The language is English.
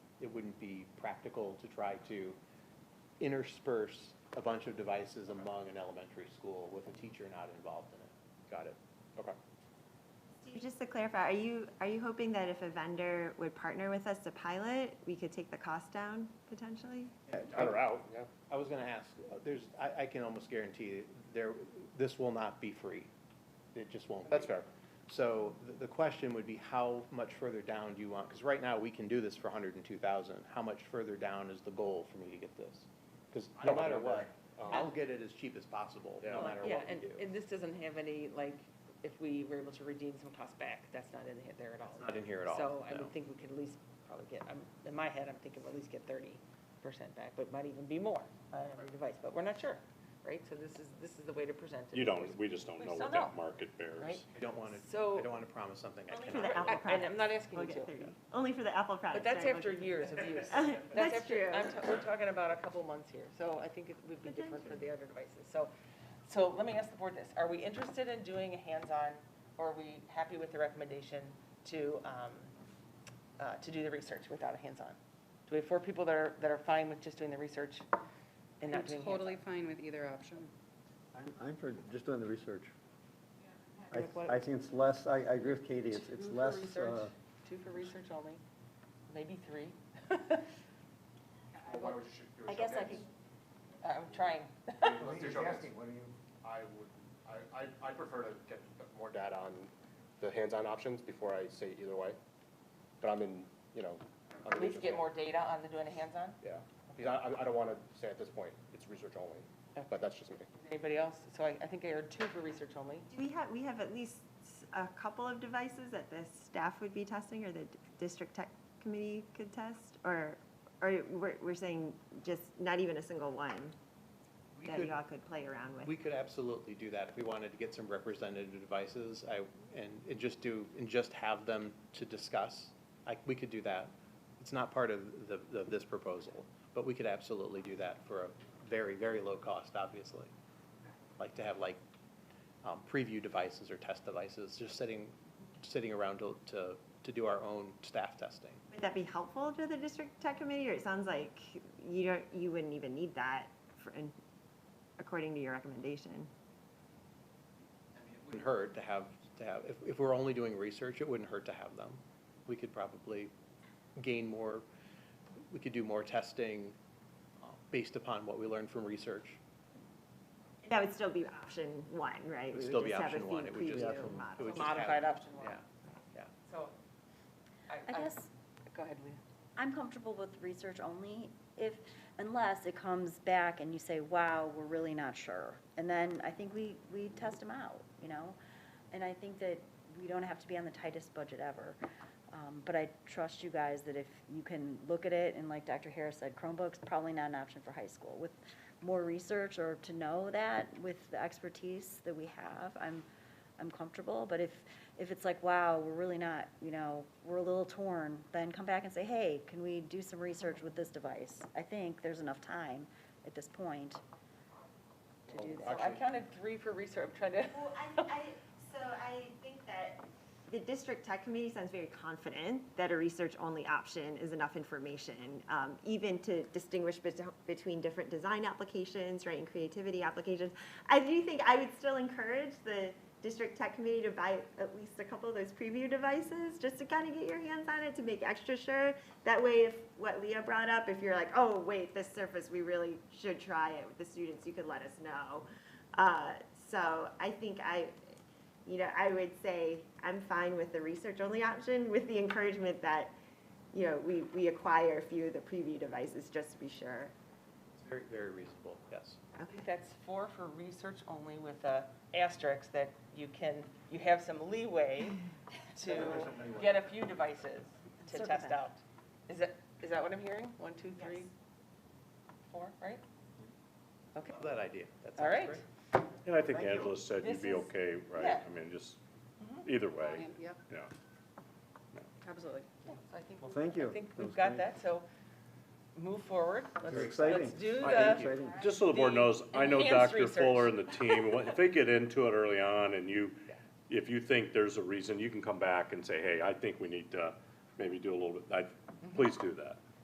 it wouldn't be practical to try to intersperse a bunch of devices among an elementary school with a teacher not involved in it. Got it. Okay. Steve, Just to clarify, are you, are you hoping that if a vendor would partner with us to pilot, we could take the cost down potentially? Or out, yeah. I was gonna ask, uh, there's, I, I can almost guarantee there, this will not be free. It just won't be. That's fair. So the, the question would be, how much further down do you want? Because right now, we can do this for hundred and two thousand. How much further down is the goal for me to get this? Because I no don't matter remember. what, I'll get it as cheap as possible, no Yeah. matter Yeah, what we and, do. and this doesn't have any, like, if we were able to redeem some costs back, that's not in he- there at all. It's not in here at all, So I no. would think we could at least probably get, I'm- in my head, I'm thinking we'll at least get thirty percent back, but might even be more uh, on every device, but we're not sure, right? So this is, this is the way to present it. You don't, we just don't We know still what that don't. market bears. Right? I don't want to, So- I don't want to promise something I Only for cannot. the deliver. Apple And I'm not asking We'll you get thirty. to. Only for the Apple But products. that's right, we'll after get years of use. That's after- true. I'm t- We're talking about a couple months here, so I think it would be But that's different for the other devices. So, so let me ask the board this, are we interested in doing a hands-on, or are we happy with the recommendation to, um, uh, to do the research without a hands-on? Do we have four people that are, that are fine with just doing the research I'm and not doing totally hands-on? fine with either option. I'm, I'm for just doing the research. Like what- I, I think it's less, I, I agree with Katie, it's, it's Two for less, uh, research, Two for research only, maybe three. Well, why would you shoot? do a I guess I showcase? I'm trying. Let's do a showcase. I would, I, I, I prefer to get more data. Data on the hands-on options before I say either way, but I'm in, you know. I'm in At least research get mode. more data on the doing a hands-on? Yeah, because I, I- I don't want to say at this point, it's research only, but that's just me. Anybody else? So I, I think I heard two for research only. Do we have, we have at least s- a couple of devices that the staff would be testing or the d- district tech committee could test? Or, or we're, we're saying just not even a single one We that could- y'all could play around We with? could absolutely do that if we wanted to get some representative devices, I, and, and just do, and just have them to discuss. I, we could do that. It's not part of the, the, this proposal, but we could absolutely do that for a very, very low cost, obviously. Like to have like, um, preview devices or test devices, just sitting, sitting around to, to, to do our own staff testing. Would that be helpful to the district tech committee? Or it sounds like you don't, you wouldn't even need that for, in- according to your recommendation? Wouldn't hurt to have, to have, if, if we're only doing research, it wouldn't hurt to have them. We could probably gain more, we could do more testing uh, based upon what we learned from research. That would still be option one, right? It would We still be just have a option one. fee It would just- preview Yeah. model. It would just have- Modified option one. Yeah, yeah. So. I guess Go ahead, Leah. I'm comfortable with research only if, unless it comes back and you say, wow, we're really not sure. And then I think we, we test them out, you know? And I think that we don't have to be on the tightest budget ever. Um, But I trust you guys that if you can look at it, and like Dr. Harris said, Chromebooks, probably not an option for high school. With more research or to know that with the expertise that we have, I'm, I'm comfortable, but if, if it's like, wow, we're really not, you know, we're a little torn, then come back and say, hey, can we do some research with this device? I think there's enough time at this point to do So that. I counted three for research, I'm trying to. Well, I, I, so I think that the district tech committee sounds very confident that a research-only option is enough information, um, even to distinguish bet- between different design applications, right, and creativity applications. I do think I would still encourage the district tech committee to buy at least a couple of those preview devices, just to kind of get your hands on it, to make extra sure. That way, if, what Leah brought up, if you're like, oh, wait, this surface, we really should try it with the students, you could let us know. Uh, so I think I, you know, I would say I'm fine with the research-only option with the encouragement that, you know, we, we acquire a few of the preview devices just to be sure. It's Very, very reasonable, yes. I think that's four for research only with a asterisk that you can, you have some leeway to get a few devices to Circle test back. out. Is that, is that what I'm hearing? One, two, three, Yes. four, right? Okay, Love that idea. That all sounds right. great. And I think Thank you. Angela said you'd be This is- okay, right? yeah. Mm-hmm. I mean, just, either way, Fine, Yep, yeah. absolutely. Yeah, so I think- Well, thank you. I think That we've was got great. that, so move forward. Let's- Very exciting. Let's do I the. think Exciting. Just so the board The knows, I know enhanced Dr. research. Fuller and the team, if they get into it early on and you, if you think there's a reason, you can come back and say, hey, I think we need to maybe do a little bit, I, please do that.